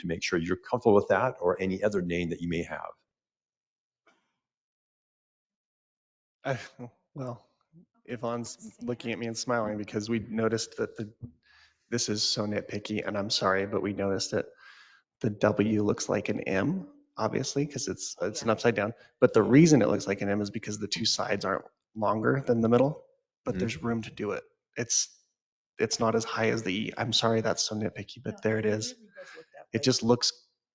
to make sure you're comfortable with that or any other name that you may have. I, well, Yvonne's looking at me and smiling because we noticed that the, this is so nitpicky and I'm sorry, but we noticed that the W looks like an M, obviously, because it's, it's an Yeah. upside down. But the reason it looks like an M is because the two sides aren't longer than the middle, but there's room to do it. It's, it's not as high as the E. I'm sorry, that's so nitpicky, but there it is. It just looks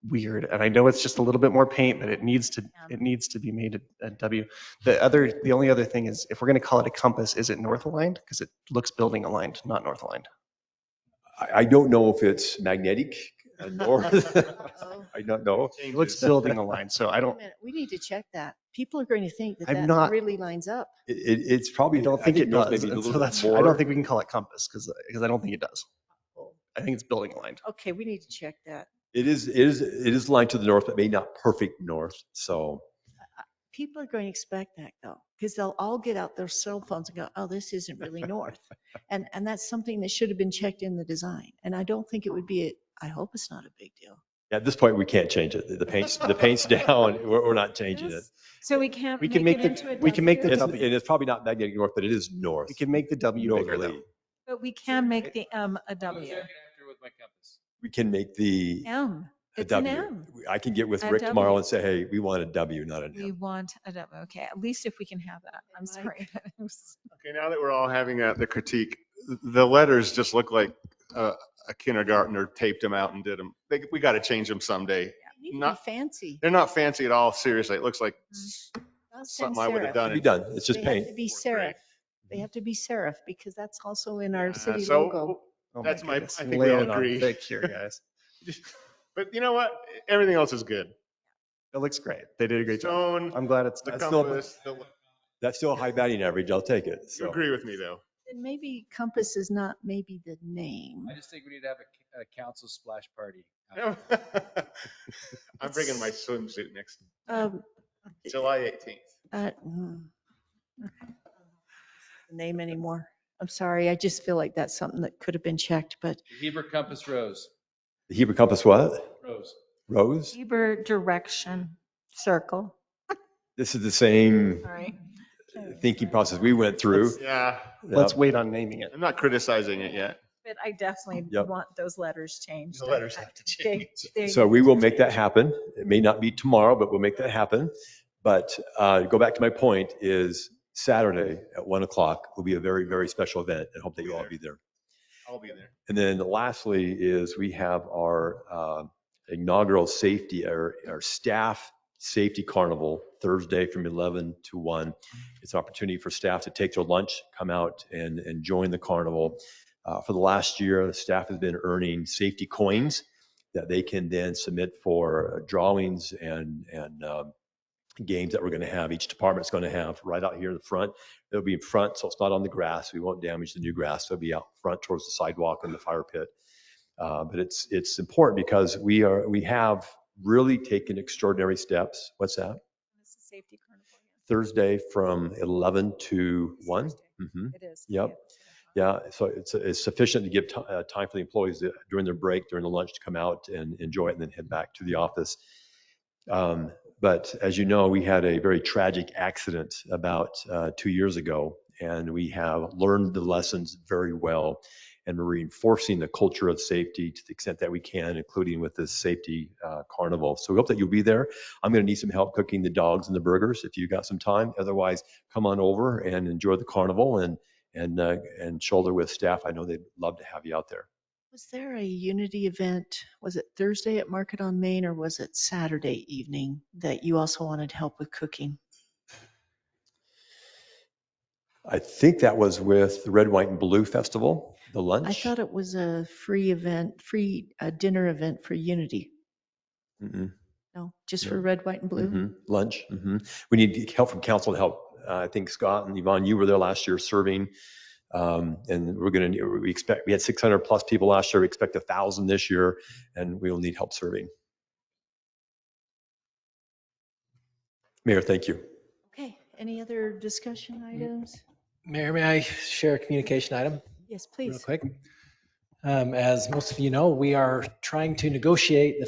weird. And I know it's just a little bit more paint, but it needs to, Yeah. it needs to be made a a W. The other, the only other thing is if we're going to call it a compass, is it north aligned? Because it looks building aligned, not north aligned. I, I don't know if it's magnetic uh, nor, Oh, I don't know. It looks building aligned, so I don't, We need to check that. People are going to think that I'm that not- really lines up. It, it- it's probably. I don't think it knows does. Maybe a and little bit so that's- I don't more. think we can call it compass because, because I don't think it does. I think it's building aligned. Okay, we need to check that. It is, it is, it is lined to the north, but maybe not perfect north. So People are going to expect that though, because they'll all get out their cell phones and go, oh, this isn't really north. And, and that's something that should have been checked in the design. And I don't think it would be, a- I hope it's not a big deal. at this point, we can't change it. The- The paint's, the paint's down. We're, we're not changing it. So we can't We can make it make the- into a we can make the It's- W, And it's probably not magnetic north, but it is north. We can make the W bigger though. Northerly. but we can make the M a W. We can make the. M, a it's an W. M. I can get with A Rick W. tomorrow and say, hey, we want a W, not an We M. want a W. Okay, at least if we can have that. I'm Mike. sorry. but it was- Okay, now that we're all having uh, the critique, the letters just look like uh, a kindergartner taped them out and did them. We got to change them someday. It need to be Not- fancy. They're not fancy at all, seriously. It looks like Mm-hmm. Not sans something I would serif. have done. Be in done. It's just They have paint. to be fourth grade. serif. Mm-hmm. They have to be serif because that's also in our Uh, city so logo. Oh That's my- goodness. I think we Lay all it on agree. Thick here, guys. But you know what? Everything else is good. It looks great. They did a great job. Stone, I'm glad it's, the I still- compass, the- That's still a high batting average. I'll take it. you So agree with me though. And maybe compass is not maybe the name. I just think we need to have a, a council splash party. I'm bringing my swimsuit next, Um, July 18th. uh, mm. Name anymore. I'm sorry. I just feel like that's something that could have been checked, but Heber Compass Rose, the Hebrew compass what? Rose. Rose? Heber direction, circle, This is the same all right? thinking process we went through. Yeah, let's Yeah. wait on naming it. I'm not criticizing it yet. But I definitely Yep. want those letters changed. The letters I- have to they- change. they- So we will make that happen. It may not be tomorrow, but we'll make that happen. But uh, go back to my point is Saturday at one o'clock will be a very, very special event and hope that you all be there. I'll be there. And then lastly is we have our uh, inaugural safety, our, our staff safety carnival Thursday from 11 to 1. It's an opportunity for staff to take their lunch, come out and, and join the carnival. Uh, For the last year, the staff has been earning safety coins that they can then submit for uh, drawings and, and um, games that we're going to have, each department's going to have right out here in the front. It'll be in front, so it's not on the grass. We won't damage the new grass. It'll be out front towards the sidewalk and the fire pit. Uh, But it's, it's important because we are, we have really taken extraordinary steps. What's that? This is safety carnival, yeah. Thursday from 11 to 1? Thursday. Mhm. It is. Yep. Yeah, so it's it's sufficient to give ti- uh, time for the employees to- during their break, during the lunch to come out and enjoy it and then head back to the office. Um, But as you know, we had a very tragic accident about uh, two years ago, and we have learned the lessons very well. And we're reinforcing the culture of safety to the extent that we can, including with this safety uh, carnival. So we hope that you'll be there. I'm going to need some help cooking the dogs and the burgers if you've got some time. Otherwise, come on over and enjoy the carnival and and, uh, and shoulder with staff. I know they'd love to have you out there. was there a unity event? Was it Thursday at Market on Main or was it Saturday evening that you also wanted help with cooking? I think that was with the Red, White, and Blue Festival, the lunch. I thought it was a free event, free uh, dinner event for unity. Mm-mm. No, just No. for red, white and Mm-hmm. blue. Mhm. Mm-hmm, Lunch. hmm We need help from council to help. Uh, I think Scott and Yvonne, you were there last year serving. Um, and we're going to, we expect, we had 600 plus people last year. We expect a thousand this year and we will need help serving. Mayor, thank you. Okay, any other discussion Mm-hmm. items? Mayor, may I share a communication item Yes, real please. quick? Um, As most of you know, we are trying to negotiate the